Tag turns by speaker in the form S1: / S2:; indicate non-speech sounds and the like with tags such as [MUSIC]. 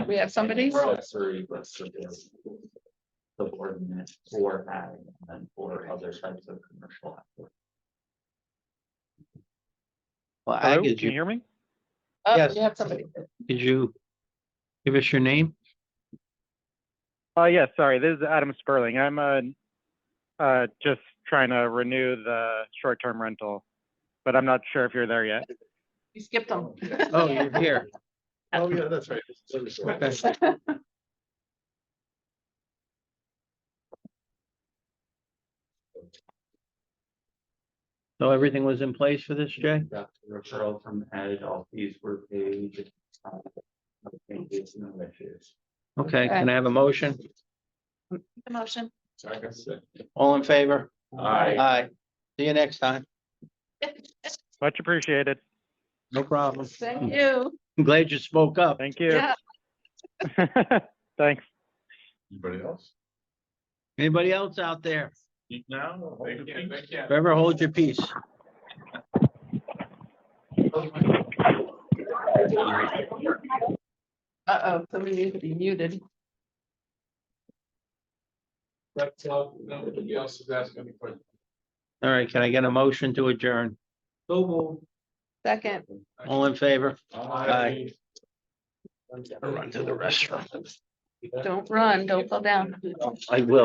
S1: we have somebody?
S2: We're all three, but for this, The board minutes for ag and then for other types of commercial.
S3: Well,
S4: Hello,
S3: Ag,
S4: can
S3: did
S4: you
S3: you,
S4: hear me?
S1: Oh,
S3: Yes.
S1: you have somebody.
S3: did you give us your name?
S4: Uh, yeah, sorry, this is Adam Sperling. I'm, uh, uh, just trying to renew the short-term rental, but I'm not sure if you're there yet.
S1: You skipped them.
S3: Oh, you're here.
S5: Oh, yeah, that's right.
S3: Okay. So everything was in place for this, Jay?
S2: Got the Referral from ag, all fees were paid. uh, no changes, no issues.
S3: Okay, can I have a motion?
S1: The motion.
S3: All in favor?
S2: Aye.
S3: Aye. See you next time.
S4: Much appreciated.
S3: No problem.
S1: Thank you.
S3: I'm glad you spoke up.
S4: Thank you.
S1: Yeah,
S4: [LAUGHS] Thanks.
S5: Anybody else?
S3: Anybody else out there?
S5: No.
S3: Forever hold your peace.
S1: uh-oh, somebody needs to be muted.
S5: That's all, nobody else is asking any questions.
S3: All right, can I get a motion to adjourn?
S1: Second,
S3: All in favor? Aye.
S5: Run to the restroom.
S1: don't run, don't go down.
S3: I will.